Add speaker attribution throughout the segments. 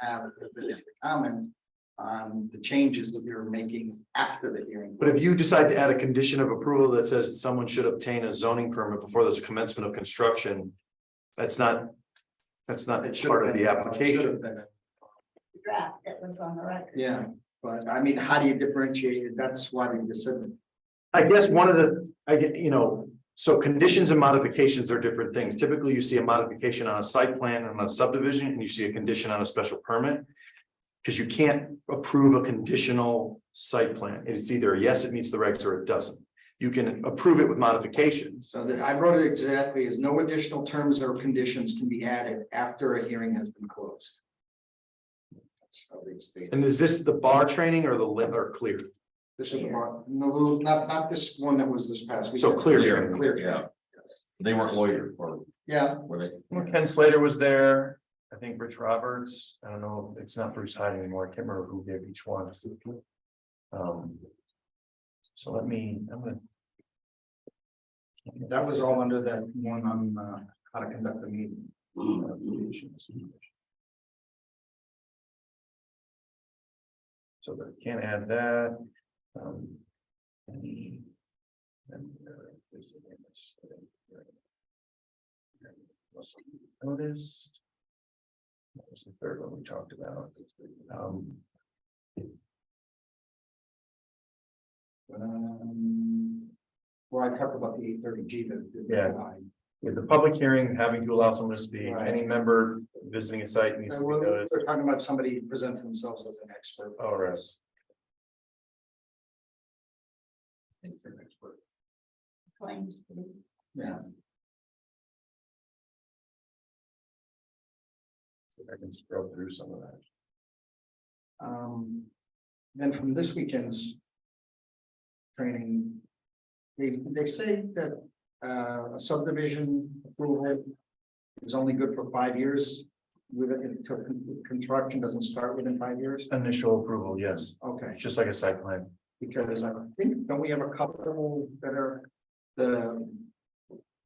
Speaker 1: have the comment on the changes that we were making after the hearing.
Speaker 2: But if you decide to add a condition of approval that says someone should obtain a zoning permit before there's a commencement of construction. That's not. That's not
Speaker 1: It should have
Speaker 2: part of
Speaker 1: been-
Speaker 2: the
Speaker 1: it should
Speaker 2: application.
Speaker 1: have been.
Speaker 3: draft that was on the record.
Speaker 1: Yeah, but I mean, how do you differentiate it? That's why we just said.
Speaker 2: I guess one of the, I get, you know, so conditions and modifications are different things. Typically, you see a modification on a site plan and on a subdivision, and you see a condition on a special permit. Because you can't approve a conditional site plan. It's either a yes, it meets the regs or it doesn't. You can approve it with modifications.
Speaker 1: So that I wrote it exactly as no additional terms or conditions can be added after a hearing has been closed. That's how they state it.
Speaker 2: And is this the bar training or the lit or clear?
Speaker 1: This is the one, no, not, not this one that was this past week.
Speaker 2: So clear training.
Speaker 1: Clear.
Speaker 4: Yeah.
Speaker 1: training.
Speaker 4: They weren't lawyers or
Speaker 1: Yeah,
Speaker 4: were they?
Speaker 2: Well, Ken Slater was there, I think Rich Roberts, I don't know, it's not Bruce Hyde anymore, I can't remember who gave each one. Um. So let me, I'm gonna.
Speaker 1: that was all under that one on, uh, how to conduct the meeting. applications.
Speaker 2: So that can add that. um, any- and, uh, this and this, uh, was Noticed. That was the third one we talked about. Um,
Speaker 1: Um, Well, I talked about the eight thirty G that.
Speaker 2: Yeah. with the public hearing, having to allow someone to speak,
Speaker 1: Right.
Speaker 2: any member visiting a site needs to be
Speaker 1: Well,
Speaker 2: noticed. Oh,
Speaker 1: They're talking about somebody who presents themselves as an expert.
Speaker 2: All right.
Speaker 3: Claims to be.
Speaker 1: Yeah.
Speaker 2: I can scroll through some of that.
Speaker 1: Um, then from this weekend's training, they, they say that, uh, a subdivision approval is only good for five years with, it until con- construction doesn't start within five years.
Speaker 2: Initial approval, yes,
Speaker 1: Okay,
Speaker 2: it's just like a site plan.
Speaker 1: because I think, don't we have a couple that are the,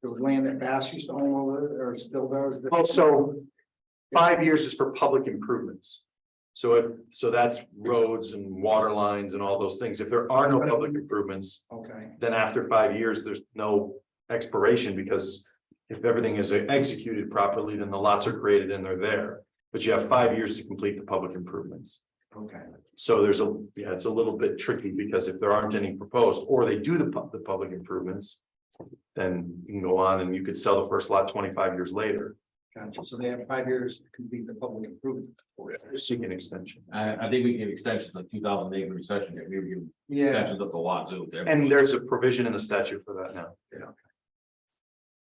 Speaker 1: the land that Bass used to own or still does? that-
Speaker 2: Also, Oh, five years is for public improvements. So if, so that's roads and water lines and all those things. If there are no public improvements,
Speaker 1: Okay,
Speaker 2: then after five years, there's no expiration because if everything is executed properly, then the lots are created and they're there. But you have five years to complete the public improvements.
Speaker 1: okay.
Speaker 2: So there's a, yeah, it's a little bit tricky because if there aren't any proposed, or they do the pub- the public improvements. Then you can go on and you could sell the first lot twenty-five years later,
Speaker 1: Gotcha, so they have five years to complete the public improvement.
Speaker 2: seek an extension.
Speaker 4: I, I think we can give extensions like two thousand acre recession, here. we give
Speaker 1: Yeah,
Speaker 4: extensions up the wazoo.
Speaker 2: And there's a provision in the statute for that now.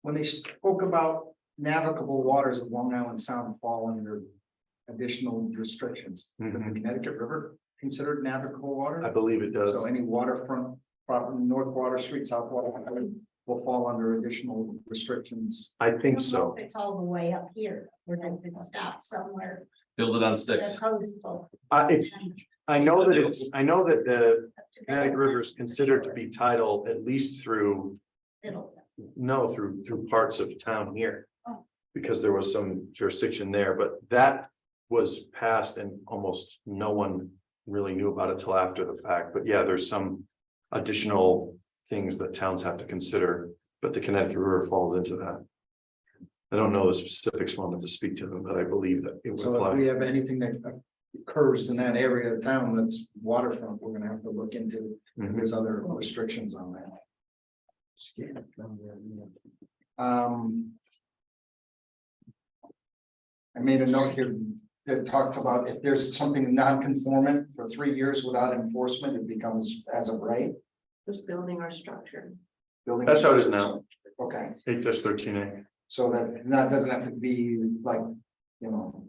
Speaker 1: when they spoke about navigable waters of Long Island Sound fall under additional restrictions, does the
Speaker 2: Mhm.
Speaker 1: Connecticut River considered navigable
Speaker 2: I
Speaker 1: water?
Speaker 2: believe it
Speaker 1: So
Speaker 2: does.
Speaker 1: any waterfront, property, North Water Street, South Water, Street will fall under additional restrictions.
Speaker 2: I
Speaker 3: I don't
Speaker 2: think
Speaker 3: know
Speaker 2: so.
Speaker 3: if It's all the way up here, or does it stop somewhere?
Speaker 4: Build it on
Speaker 3: The
Speaker 4: sticks.
Speaker 3: coastal.
Speaker 2: Uh, it's, I know that it's, I know that the Connecticut River is considered to be title at least through
Speaker 3: Middle.
Speaker 2: No, through, through parts of town here.
Speaker 3: Oh.
Speaker 2: Because there was some jurisdiction there, but that was passed and almost no one really knew about it till after the fact, but yeah, there's some. Additional things that towns have to consider, but the Connecticut River falls into that. I don't know the specifics, wanted to speak to them, but I believe that it would
Speaker 1: So if
Speaker 2: apply.
Speaker 1: we have anything that occurs in that area of town that's waterfront, we're gonna have to look into, if
Speaker 2: Mhm.
Speaker 1: there's other restrictions on that. Scan. Um. I made a note here that talked about if there's something non-conformant for three years without enforcement, it becomes as of right.
Speaker 3: This building or structure.
Speaker 1: Building-
Speaker 2: That's how it is now,
Speaker 1: Okay,
Speaker 2: eight dash thirteen A,
Speaker 1: so that, that doesn't have to be like, you know.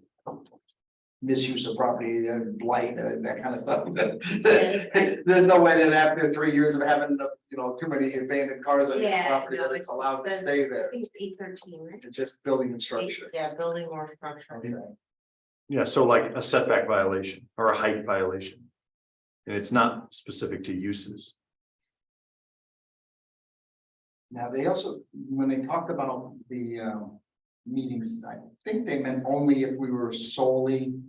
Speaker 1: Misuse of property, uh, blight, uh, that kind of stuff. There's no way that after three years of having, the, you know, too many abandoned cars on your
Speaker 5: Yeah,
Speaker 1: property,
Speaker 5: no,
Speaker 1: that
Speaker 5: it's-
Speaker 1: it's allowed to
Speaker 5: it's-
Speaker 1: stay there.
Speaker 5: think eight thirteen, right?
Speaker 1: It's just building and structure.
Speaker 5: Yeah, building or structure.
Speaker 1: Okay.
Speaker 2: yeah, so like a setback violation or a height violation. And it's not specific to uses.
Speaker 1: Now, they also, when they talked about the um meetings, I think they meant only if we were solely